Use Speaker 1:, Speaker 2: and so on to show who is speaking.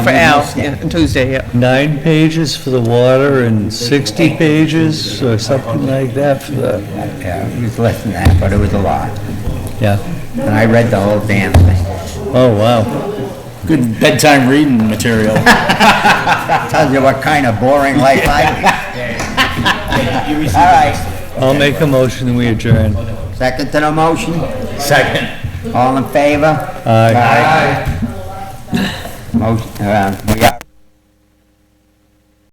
Speaker 1: For Al, yeah, on Tuesday, yeah.
Speaker 2: nine pages for the water and 60 pages or something like that for the,
Speaker 3: Yeah, it was less than that, but it was a lot.
Speaker 2: yeah.
Speaker 3: And I read the whole damn thing.
Speaker 2: Oh, wow.
Speaker 4: Good bedtime reading material.
Speaker 3: Tells you what kind of boring life I live. All right,
Speaker 2: I'll make a motion and we adjourn.
Speaker 3: second to the motion?
Speaker 4: Second.
Speaker 3: All in favor?
Speaker 2: Aye.
Speaker 3: Aye. Motion, uh, we are.